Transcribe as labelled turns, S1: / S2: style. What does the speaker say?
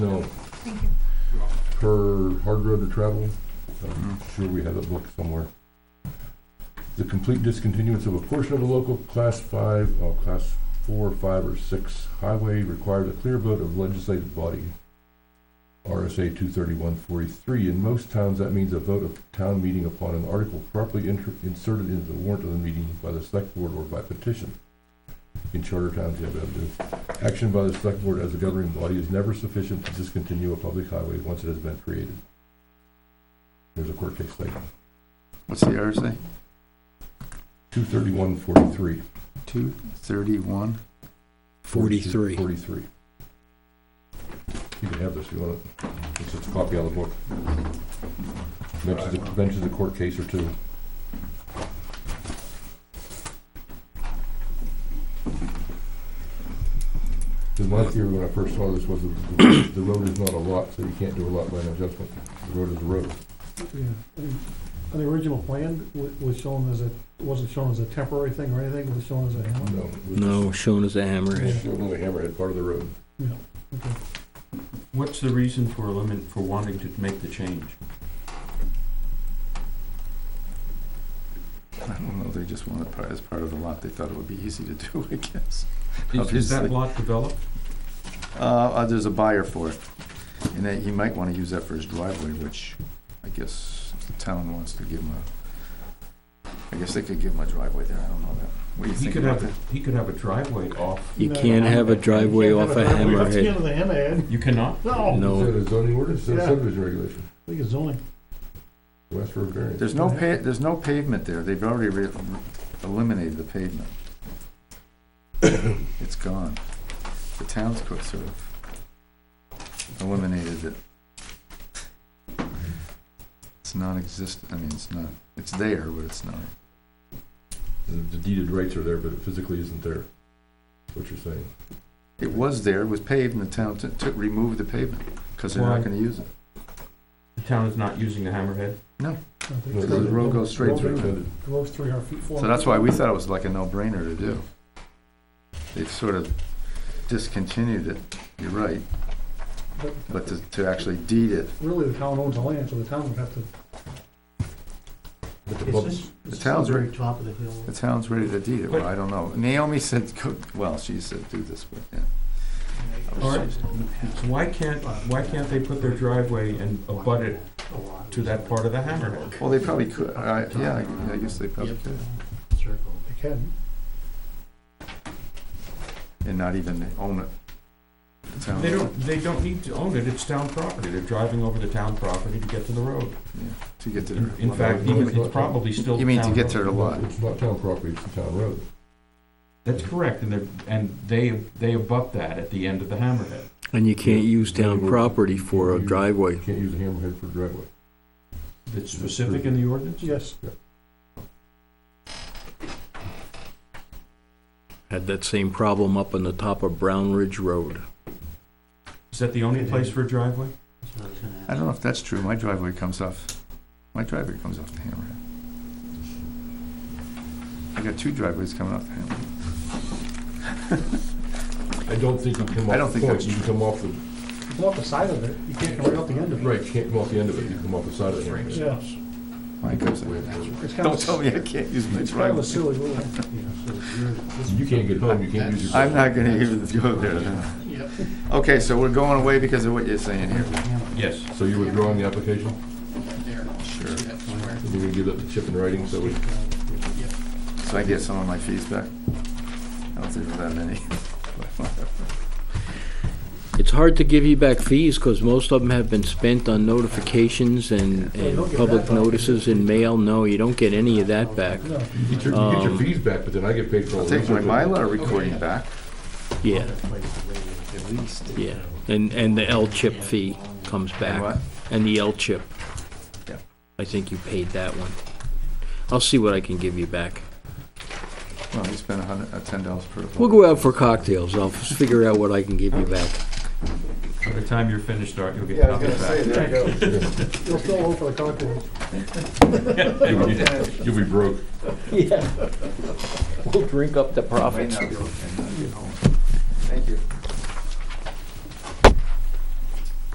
S1: No,
S2: Thank you.
S1: her hard road to travel, I'm sure we have it booked somewhere. The complete discontinuance of a portion of a local class five, oh, class four, five, or six highway required a clear vote of legislative body. RSA two thirty-one forty-three, in most towns, that means a vote of town meeting upon an article properly inter- inserted into the warrant of the meeting by the select board or by petition. In charter towns, you have to do. Action by the select board as a governing body is never sufficient to discontinue a public highway once it has been created. There's a court case like
S3: What's the RSA?
S1: two thirty-one forty-three.
S3: Two thirty-one?
S4: Forty-three.
S1: Forty-three. You can have this if you want it. It's just a copy out of the book. Mentions, a- mentions a court case or two. Because my theory when I first saw this was that the the road is not a lot, so you can't do a lot line adjustment. The road is a road.
S5: Yeah, I mean, on the original plan, wa- was shown as a, wasn't shown as a temporary thing or anything, was shown as a hammer.
S1: No. it was
S4: No, shown as a hammerhead.
S1: just- It's only hammerhead part of the road.
S6: What's the reason for elimin, for wanting to make the change?
S3: I don't know, they just wanted part, as part of the lot, they thought it would be easy to do, I guess.
S6: Is, is
S3: Obviously.
S6: that lot developed?
S3: Uh, uh, there's a buyer for it, and that he might wanna use that for his driveway, which I guess the town wants to give him a, I guess they could give him a driveway there, I don't know that. What do you
S6: He
S3: think
S6: could
S3: about
S6: have,
S3: that?
S6: a- he could have a driveway off.
S4: You can't have a driveway off a
S5: That's the end
S4: hammerhead.
S5: of the hammerhead.
S6: You cannot?
S5: No, I
S1: Oh, Is that
S4: No,
S1: a zoning ordinance, or
S5: Yeah.
S1: subdivision regulation,
S5: think it's zoning.
S1: West Road variance?
S3: There's no pa, there's no pavement there, they've already re- eliminated the pavement. It's gone. The town's quite sort of eliminated it. It's non-existent, I mean, it's not, it's there, but it's not.
S1: The the deeded rights are there, but it physically isn't there, what you're saying.
S3: It was there, it was paved, and the town took, took, removed the pavement, because they're
S6: Why?
S3: not gonna use it.
S6: The town is not using the hammerhead?
S5: I think
S1: No,
S5: it's-
S1: the
S3: road goes straight
S5: Road
S3: through.
S5: goes- Goes three hundred feet forward.
S3: So that's why we thought it was like a no-brainer to do. They've sort of discontinued it, you're right, but to, to actually deed it,
S5: Really, the town owns the land, so the town would have to.
S1: But the pub-
S3: The town's
S5: very
S3: right-
S5: Top of the hill.
S3: the town's ready to deed it, well, I don't know. Naomi said, go- well, she said do this, but, yeah.
S6: All right. Why can't, why can't they put their driveway and abut it to that part of the hammerhead?
S3: Well, they probably could, I, yeah, I- I guess they probably could,
S5: They can.
S3: and not even own it. The town-
S6: They don't, they don't need to own it, it's town property. They're driving over the town property to get to the road.
S3: yeah, To get to the.
S6: In fact, even, it's probably still.
S3: You mean to
S6: town
S3: get to
S6: property.
S3: the lot?
S1: It's not town property, it's a town road.
S6: That's correct, and they're, and they, they abut that at the end of the hammerhead.
S4: and you can't use town property for a driveway.
S1: You can't use a hammerhead for driveway.
S6: It's specific in the ordinance?
S5: Yes,
S4: Had that same problem up on the top of Brown Ridge Road.
S6: Is that the only place for a driveway?
S3: I don't know if that's true, my driveway comes off, my driveway comes off the hammerhead. I got two driveways coming off the hammerhead.
S1: I don't think you come
S3: I don't
S1: off the
S3: think
S1: point,
S3: that's
S1: you can come off the,
S5: you come off the side of it, you can't come right off the end of it.
S1: right, you can't come off the end of it, you come off the side of the hammerhead.
S5: Yeah.
S3: Mine goes like that.
S5: It's kind
S3: Don't
S5: of,
S3: tell me I can't use my
S5: it's kind of a
S3: driveway.
S5: silly rule.
S1: You can't get home, you can't use your.
S3: I'm not gonna even go there now. Okay, so we're going away because of what you're saying here.
S6: Yes.
S1: So you're withdrawing the application?
S3: Sure.
S1: And you're gonna give that to Chip in writing, so we,
S3: So I get some of my fees back. I don't think there's that many.
S4: It's hard to give you back fees because most of them have been spent on notifications and, and public notices in mail. No, you don't get any of that back.
S5: No,
S1: you get your, you get your
S4: Um,
S1: fees back, but then I get paid for all
S3: I'll
S1: the
S3: take my
S1: research.
S3: Mylar recording back.
S4: Yeah. Yeah, and, and the L-chip fee comes back.
S3: And what?
S4: And the L-chip.
S3: Yeah.
S4: I think you paid that one. I'll see what I can give you back.
S3: Well, you spent a hundred, uh, ten dollars per.
S4: We'll go out for cocktails. I'll figure out what I can give you back.
S6: By the time you're finished, Art, you'll get
S3: Yeah, I was gonna
S6: nothing
S3: say,
S6: back.
S3: there you go.
S5: you'll still owe for the cocktails.
S1: You'll be- You'll be broke.
S4: Yeah. We'll drink up the
S3: Might
S4: profits.
S3: not be able to get home.